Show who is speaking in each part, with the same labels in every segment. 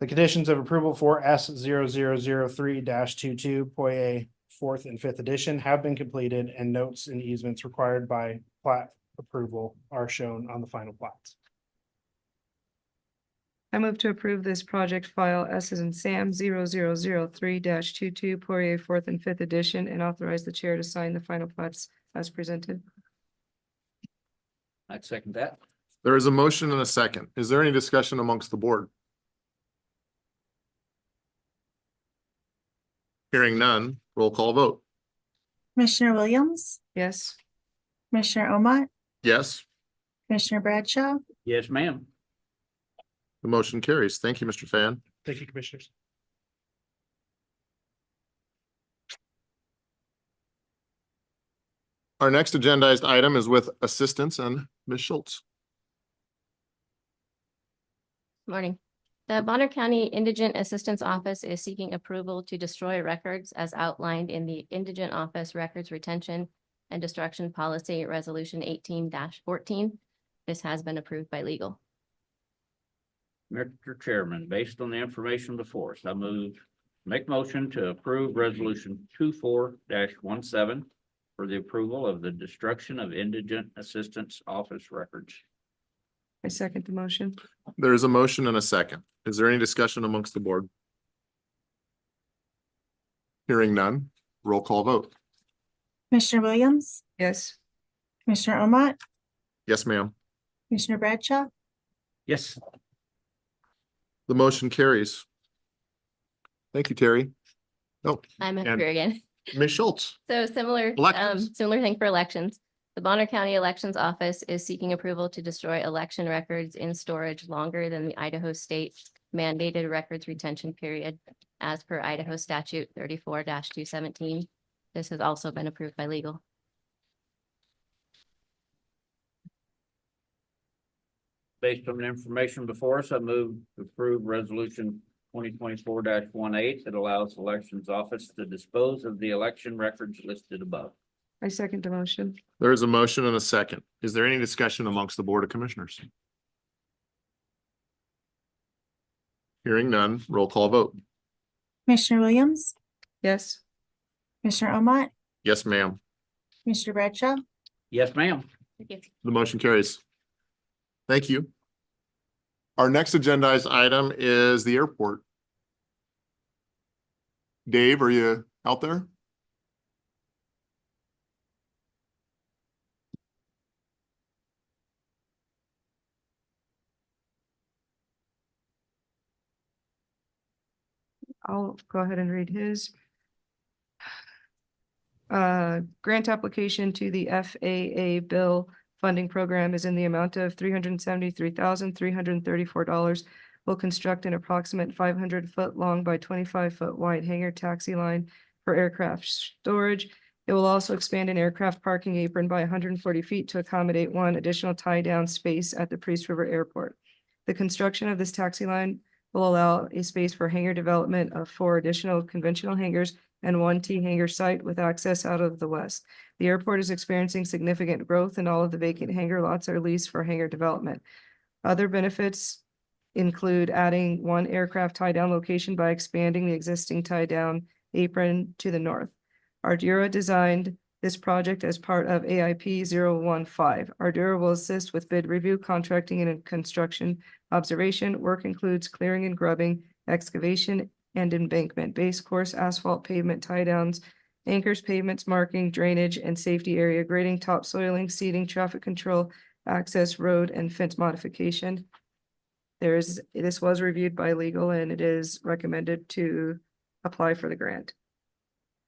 Speaker 1: The conditions of approval for S 3 22 Poye fourth and fifth edition have been completed and notes and easements required by plat approval are shown on the final plats.
Speaker 2: I move to approve this project file S as in Sam zero zero zero three dash two two Poirier fourth and fifth edition and authorize the chair to sign the final plats as presented.
Speaker 3: I'd second that.
Speaker 4: There is a motion and a second. Is there any discussion amongst the board? Hearing none, roll call vote.
Speaker 5: Commissioner Williams,
Speaker 2: Yes,
Speaker 5: Commissioner Omat,
Speaker 4: Yes,
Speaker 5: Commissioner Bradshaw,
Speaker 3: Yes, ma'am.
Speaker 4: the motion carries. Thank you, Mr. Fan.
Speaker 1: Thank you, commissioners.
Speaker 4: Our next agendized item is with assistance and Ms. Schultz.
Speaker 6: Morning. The Bonner County Indigent Assistance Office is seeking approval to destroy records as outlined in the Indigent Office Records Retention and Destruction Policy Resolution eighteen fourteen. This has been approved by legal.
Speaker 3: Mr. Chairman, based on the information before us, I move, make motion to approve resolution two four dash one seven for the approval of the destruction of indigent assistance office records.
Speaker 2: I second the motion.
Speaker 4: There is a motion and a second. Is there any discussion amongst the board? Hearing none, roll call vote.
Speaker 5: Commissioner Williams,
Speaker 2: Yes,
Speaker 5: Commissioner Omat,
Speaker 4: Yes, ma'am.
Speaker 5: Commissioner Bradshaw,
Speaker 3: Yes.
Speaker 4: The motion carries. Thank you, Terry. Oh,
Speaker 6: I'm up
Speaker 4: And-
Speaker 6: here again.
Speaker 4: Ms. Schultz.
Speaker 6: So similar, um,
Speaker 4: Elections.
Speaker 6: similar thing for elections. The Bonner County Elections Office is seeking approval to destroy election records in storage longer than the Idaho state mandated records retention period as per Idaho statute thirty-four two seventeen. This has also been approved by legal.
Speaker 3: Based on the information before us, I move to approve resolution twenty twenty-four dash one eight that allows elections office to dispose of the election records listed above.
Speaker 2: I second the motion.
Speaker 4: There is a motion and a second. Is there any discussion amongst the Board of Commissioners? Hearing none, roll call vote.
Speaker 5: Commissioner Williams,
Speaker 2: Yes,
Speaker 5: Commissioner Omat,
Speaker 4: Yes, ma'am.
Speaker 5: Commissioner Bradshaw,
Speaker 3: Yes, ma'am.
Speaker 6: Thank you.
Speaker 4: The motion carries. Thank you. Our next agendized item is the airport. Dave, are you out there?
Speaker 2: I'll go ahead and read his. Uh, grant application to the FAA bill funding program is in the amount of three hundred and seventy-three thousand, three hundred and thirty-four dollars. Will construct an approximate five hundred foot long by twenty-five foot wide hangar taxi line for aircraft storage. It will also expand an aircraft parking apron by hundred and forty feet to accommodate one additional tie-down space at the Priest River Airport. The construction of this taxi line will allow a space for hangar development of four additional conventional hangars and one T hangar site with access out of the west. The airport is experiencing significant growth and all of the vacant hangar lots are leased for hangar development. Other benefits include adding one aircraft tie-down location by expanding the existing tie-down apron to the north. Ardura designed this project as part of AIP 015. Ardura will assist with bid review, contracting and construction Observation, work includes clearing and grubbing, excavation and embankment, base course asphalt pavement tie downs, anchors, pavements, marking, drainage and safety area grading, topsoiling, seeding, traffic control, access road and fence modification. There is, this was reviewed by legal and it is recommended to apply for the grant.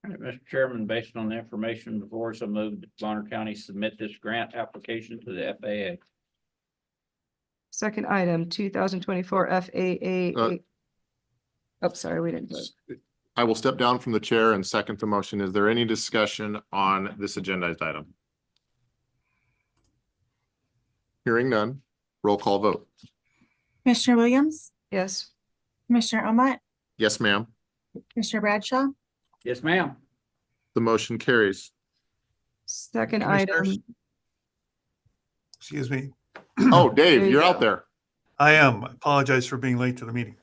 Speaker 3: All right, Mr. Chairman, based on the information before us, I move that Bonner County submit this grant application to the FAA.
Speaker 2: Second item, two thousand twenty-four
Speaker 4: Uh,
Speaker 2: FAA. Oh, sorry, we didn't vote.
Speaker 4: I will step down from the chair and second the motion. Is there any discussion on this agendized item? Hearing none, roll call vote.
Speaker 5: Commissioner Williams,
Speaker 2: Yes,
Speaker 5: Commissioner Omat,
Speaker 4: Yes, ma'am.
Speaker 5: Commissioner Bradshaw,
Speaker 3: Yes, ma'am.
Speaker 4: The motion carries.
Speaker 2: second
Speaker 4: Commissioners?
Speaker 2: item,
Speaker 7: Excuse me.
Speaker 4: Oh, Dave,
Speaker 2: you
Speaker 4: you're
Speaker 2: go.
Speaker 4: Oh, out there.
Speaker 7: I am. I Apologize for being late to the meeting.